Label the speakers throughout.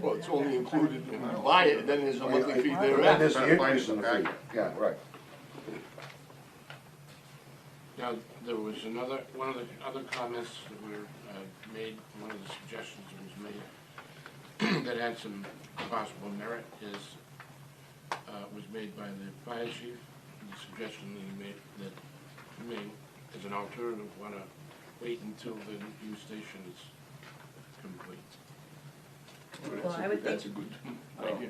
Speaker 1: Well, it's only included when you buy it, and then there's a monthly fee thereafter.
Speaker 2: There's the increase in the fee, yeah, right.
Speaker 3: Now, there was another, one of the other comments that were uh, made, one of the suggestions that was made that had some possible merit is, uh, was made by the fire chief, the suggestion that he made, that he made as an alternative, wanna wait until the new station is complete.
Speaker 4: Well, I would
Speaker 1: That's a
Speaker 4: think-
Speaker 1: good
Speaker 3: Like,
Speaker 1: idea.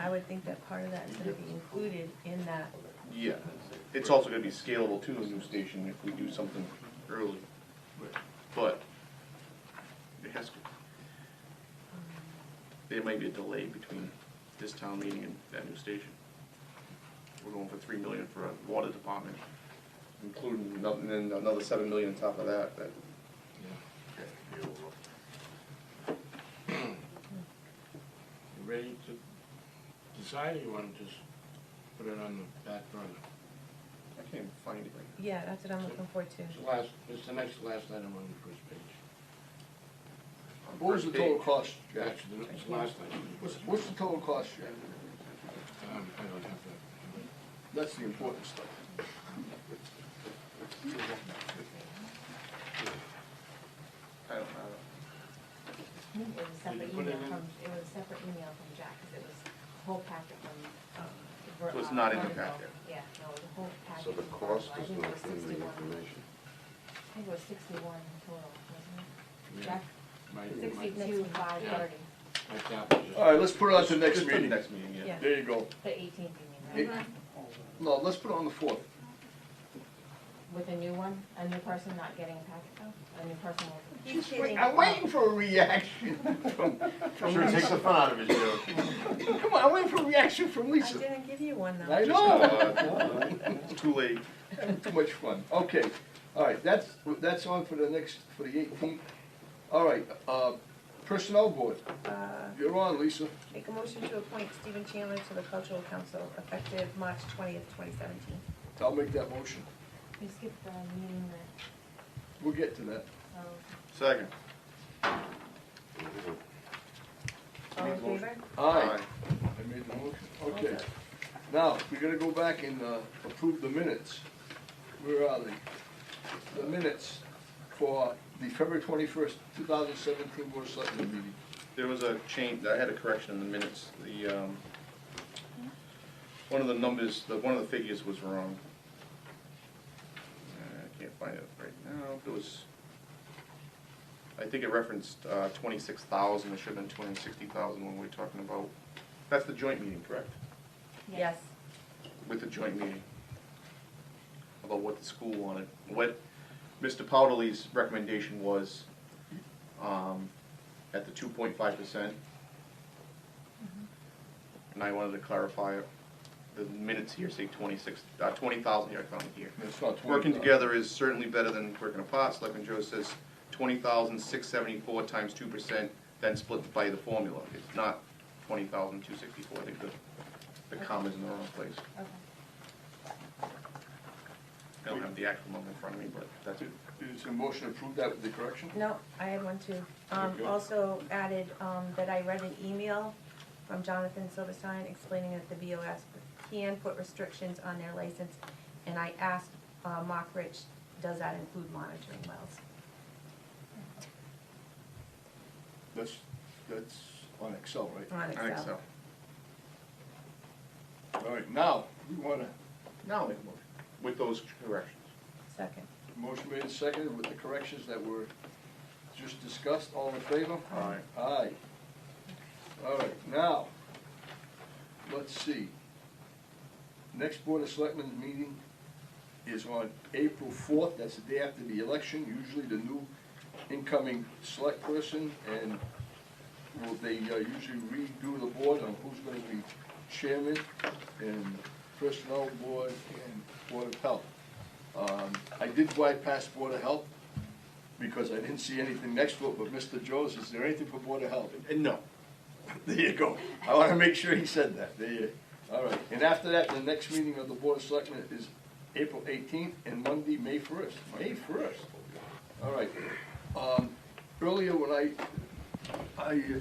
Speaker 4: I would think that part of that is gonna be included in that.
Speaker 5: Yeah, it's also gonna be scalable to the new station if we do something early,
Speaker 1: Oh.
Speaker 5: but it has to. There might be a delay between this town meeting and that new station. We're going for three million for a water department, including another, and then another seven million on top of that, that.
Speaker 3: yeah. You ready to decide, or you wanna just put it on the back burner?
Speaker 5: I can't even find it right
Speaker 4: Yeah, that's what I'm looking for too.
Speaker 3: It's the last, it's the next, last item on the first page.
Speaker 1: What was the total cost, Jack?
Speaker 3: Actually, the- it's the last item.
Speaker 1: What's, what's the total cost, Jack?
Speaker 3: Um, I don't have that.
Speaker 1: That's the important stuff.
Speaker 5: now. I don't know.
Speaker 6: It was a separate
Speaker 3: you put it
Speaker 6: email
Speaker 3: in?
Speaker 6: from, it was a separate email from Jack, because it was a whole packet from. um, Ver-
Speaker 5: So it's
Speaker 6: uh,
Speaker 5: not in the
Speaker 6: Vertical.
Speaker 5: packet.
Speaker 6: Yeah, no, it was a whole packet.
Speaker 2: So the
Speaker 6: from
Speaker 2: cost
Speaker 6: Vertical. I
Speaker 2: is not in the
Speaker 6: think it was 61.
Speaker 2: information.
Speaker 6: I think it was sixty-one total, wasn't
Speaker 3: Yeah,
Speaker 6: it? Jack,
Speaker 3: my- my-
Speaker 6: sixty-two, five
Speaker 3: Yeah.
Speaker 6: thirty,
Speaker 3: my tab is
Speaker 1: All
Speaker 3: just-
Speaker 1: right, let's put it on to the next
Speaker 5: Just for the
Speaker 1: meeting.
Speaker 5: Next meeting, yeah.
Speaker 4: Yeah.
Speaker 1: There you go.
Speaker 6: the eighteenth, you
Speaker 1: Hey,
Speaker 6: mean, right?
Speaker 1: No, let's put it on the fourth.
Speaker 6: With a new one, a new person not getting a packet though, a new person will.
Speaker 4: He's
Speaker 1: I'm waiting for a reaction.
Speaker 2: Sure, it takes the fun out of it, Joe.
Speaker 1: Come on, I'm waiting for a reaction from
Speaker 4: I
Speaker 1: Lisa.
Speaker 4: didn't give you one
Speaker 1: I
Speaker 4: though.
Speaker 1: know.
Speaker 5: Uh, It's Too late.
Speaker 1: Too much fun. Okay, all right, that's, that's on for the next, for the eighteenth. All right, uh, Personnel Board,
Speaker 4: Uh,
Speaker 1: you're on, Lisa.
Speaker 4: Make a motion to appoint Stephen Chandler to the cultural council effective March twentieth, twenty seventeen.
Speaker 1: I'll make that motion.
Speaker 6: You skipped the meeting that,
Speaker 1: We'll get to that.
Speaker 6: oh,
Speaker 5: Second.
Speaker 4: All in favor?
Speaker 1: Aye. I made the motion. Okay. Now, we're gonna go back and uh, approve the minutes. Where are they? The minutes for the February twenty-first, two thousand seventeen Board of Selectmen meeting.
Speaker 5: There was a change, I had a correction in the minutes, the, um, one of the numbers, the, one of the figures was wrong. Uh, I can't find it right now, it was, I think it referenced, uh, twenty-six thousand, it should have been two hundred and sixty thousand when we were talking about, that's the joint meeting, correct?
Speaker 4: Yes.
Speaker 5: With the joint meeting. About what the school wanted, what Mr. Powderly's recommendation was, um, at the two point five percent. And I wanted to clarify, the minutes here say twenty-six, uh, twenty thousand here, I found it here.
Speaker 1: It's not twenty.
Speaker 5: Working together is certainly better than working apart, Selectman Joe says twenty thousand six seventy-four times two percent, then split by the formula. It's not twenty thousand two sixty-four, I think the, the comma's in the wrong place.
Speaker 6: okay.
Speaker 5: I don't have the actual number in front of me, but that's it.
Speaker 1: Is a motion to approve that with the correction?
Speaker 4: No, I had one too. Um,
Speaker 1: Okay.
Speaker 4: also added, um, that I read an email from Jonathan Silverstein explaining that the BOS can put restrictions on their license. And I asked, uh, Mock Rich, does that include monitoring wells?
Speaker 1: That's, that's on Excel, right?
Speaker 4: On
Speaker 5: I think so.
Speaker 4: Excel.
Speaker 1: All right, now, we want a
Speaker 5: Now I'll make a motion. With those corrections.
Speaker 4: Second.
Speaker 1: motion made and seconded with the corrections that were just discussed, all in favor?
Speaker 5: Aye.
Speaker 1: Aye. All right, now, let's see. Next Board of Selectmen meeting is on April fourth, that's the day after the election, usually the new incoming select person, and will they uh, usually redo the board on who's gonna be chairman, and personnel board, and Board of Health. Um, I did bypass Board of Health, because I didn't see anything next to it, but Mr. Jones, is there anything for Board of Health?
Speaker 5: And no.
Speaker 1: There you go. I wanna make sure he said that. There you, all right. And after that, the next meeting of the Board of Selectmen is April eighteenth and Monday, May first. May first. All right. Um, earlier when I, I